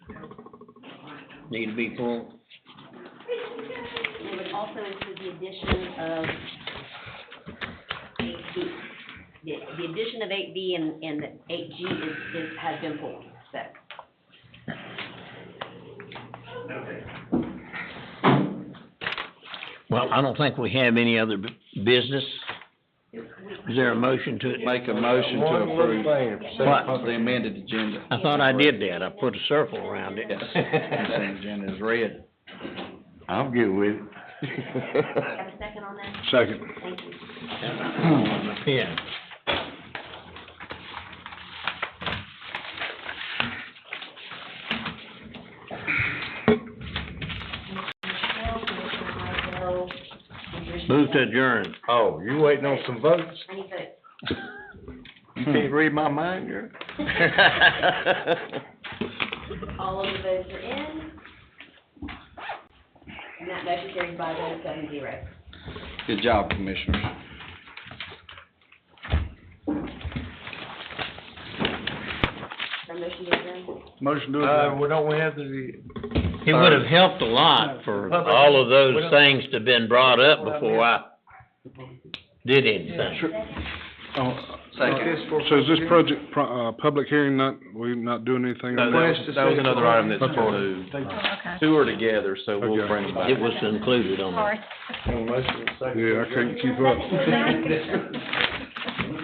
need to be full. It would also include the addition of eight B. The, the addition of eight B and, and eight G is, is, has been pulled, so. Well, I don't think we have any other bu- business. Is there a motion to it? Make a motion to One more approve thing, What? the amended agenda. I thought I did that. I put a circle around it. Yes, that agenda is red. I'm good with You it. Have a second on that? Second. Thank you. Yeah. Well, Commissioner Mydell, and your- Move to adjourn. Oh, you waiting on some votes? I need votes. You can't read my mind, girl. All of the votes are in. And that motion carries by a vote of seven zero. Good job, Commissioners. Our motion to adjourn. Motion Uh, well, don't we have the, It would have helped a lot for all of those things to been brought up before I did anything. Second. So is this project, pro- uh, public hearing not, we not doing anything on that? Request to That was see if- another item that's Okay. removed. Two are together, so we'll Okay. bring them back. It was included on that. Yeah, I couldn't keep up.